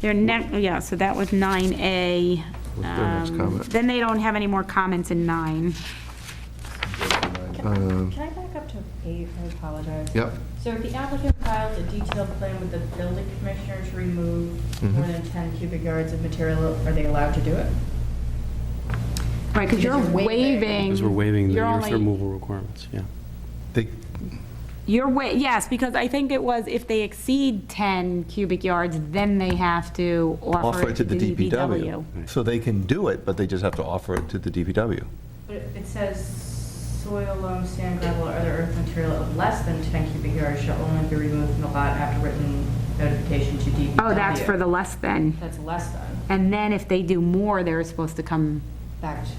Their next, yeah, so that was 9A. What's their next Um, comment? Then they don't have any more comments in 9. Um, Can I back up to eight? I apologize. Yep. So if the applicant files a detailed plan with the building commissioner to remove Mhm. more than 10 cubic yards of material, are they allowed to do it? Right, because you're Because you're waiving. waiving. Because we're waiving the you're earth only- removal requirements, yeah. They, You're wa, yes, because I think it was if they exceed 10 cubic yards, then they have to offer it to the DPW. Right. So they can do it, but they just have to offer it to the DPW. But it it says soil, loam, sand, gravel, or other earth material of less than 10 cubic yards shall only be removed from the lot after written notification to DPW. Oh, that's for the less than. That's less than. And then if they do more, they're supposed to come, Back to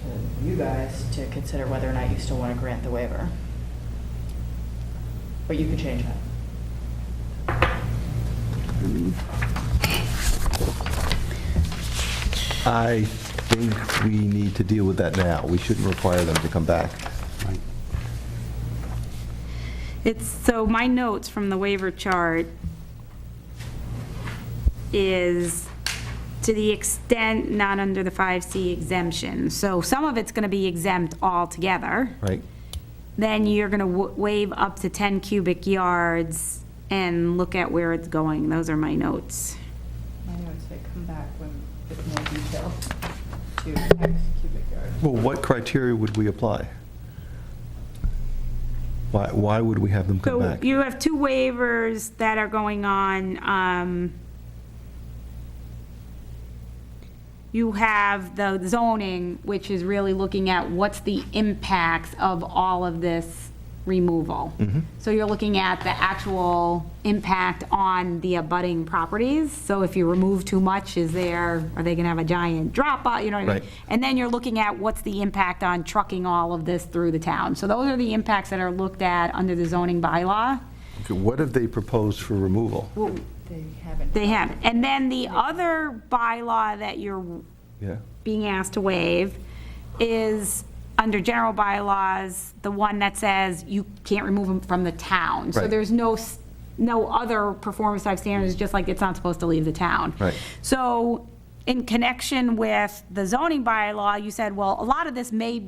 you guys to consider whether or not you still want to grant the waiver. But you could change that. I think we need to deal with that now. We shouldn't require them to come back. Right. it's, so my notes from the waiver chart is to the extent not under the 5C exemption. So some of it's going to be exempt altogether. Right? then you're going to waive up to 10 cubic yards and look at where it's going. Those are my notes. My notes say come back when, with more detail to X cubic yard. Well, what criteria would we apply? Why, why would we have them So come back? you have two waivers that are going on. um, You have the zoning, which is really looking at what's the impacts of all of this removal. So you're looking at the actual impact on the abutting properties. So if you remove too much, is there, are they going to have a giant drop out, you know what I mean? Right. And then you're looking at what's the impact on trucking all of this through the town. So those are the impacts that are looked at under the zoning bylaw. Okay, What have they proposed for removal? They haven't. They have. And then the other bylaw that you're Yeah, being asked to waive is under general bylaws, the one that says you can't remove them from the town. So Right. there's no, s- no other performance type standards, just like it's not supposed to leave the town. Right. So in connection with the zoning bylaw, you said, well, a lot of this may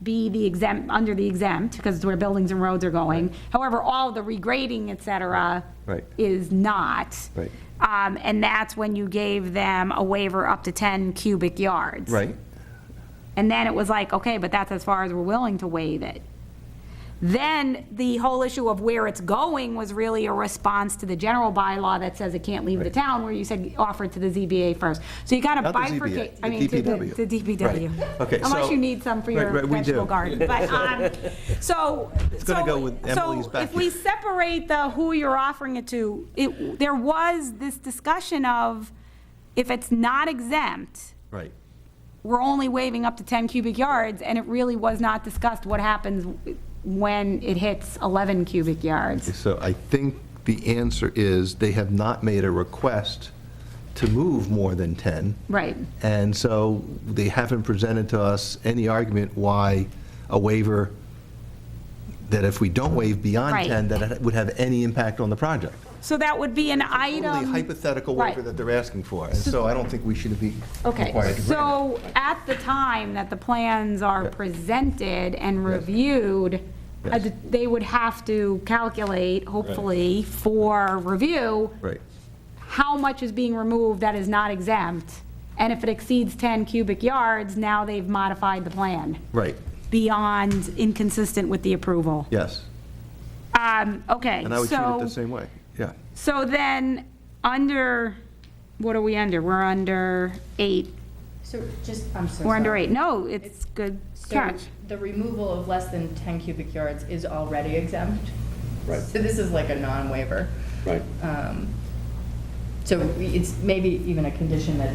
be the exempt, under the exempt, because it's where buildings and roads are going. However, all the regrading, et cetera. Right. Is not. Right. Um, and that's when you gave them a waiver up to 10 cubic yards. right? And then it was like, okay, but that's as far as we're willing to waive it. Then the whole issue of where it's going was really a response to the general bylaw that says it can't leave the Right. town, where you said offer it to the ZBA first. So you kind of Not the ZBA, bifurcate. the I mean, to DPW. To DPW. Right. Okay, Unless so- you need some for your Right, right, we do. vegetable garden. But, um, so. It's gonna go with Emily's back So if we here. separate the who you're offering it to, it, there was this discussion of if it's not exempt, Right. we're only waiving up to 10 cubic yards, and it really was not discussed what happens when it hits 11 cubic yards. So I think the answer is they have not made a request to move more than 10. Right. And so they haven't presented to us any argument why a waiver, that if we don't waive beyond Right. 10, that it would have any impact on the project. So that would be an item. Only hypothetical um, Right. waiver that they're asking for. And so I don't think we should be Okay, required to grant so it. at the time that the plans are Yeah. presented and reviewed, uh, Yes. they would have to calculate, hopefully, for review, Right, how much is being removed that is not exempt. And if it exceeds 10 cubic yards, now they've modified the plan. right, beyond inconsistent with the approval. yes. Um, okay, And I would treat it so, the same way, yeah. so then, under, what are we under? We're under eight, So just, I'm so sorry. we're under eight, no, it's good So catch. the removal of less than 10 cubic yards is already exempt? Right. So this is like a non-waiver. Right. Um, So it's maybe even a condition that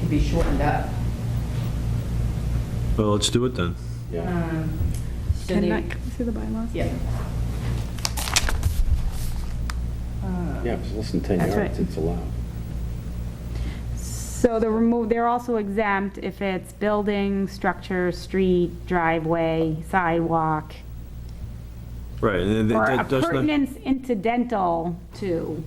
could be shortened up. Well, let's do it then. Um, so Can they- I can I see the bylaws? Yeah. Uh, Yeah, if it's less than 10 That's yards, right. it's allowed. So the remove, they're also exempt if it's building, structure, street, driveway, sidewalk, Right, and or that- that does not, appurtenance incidental to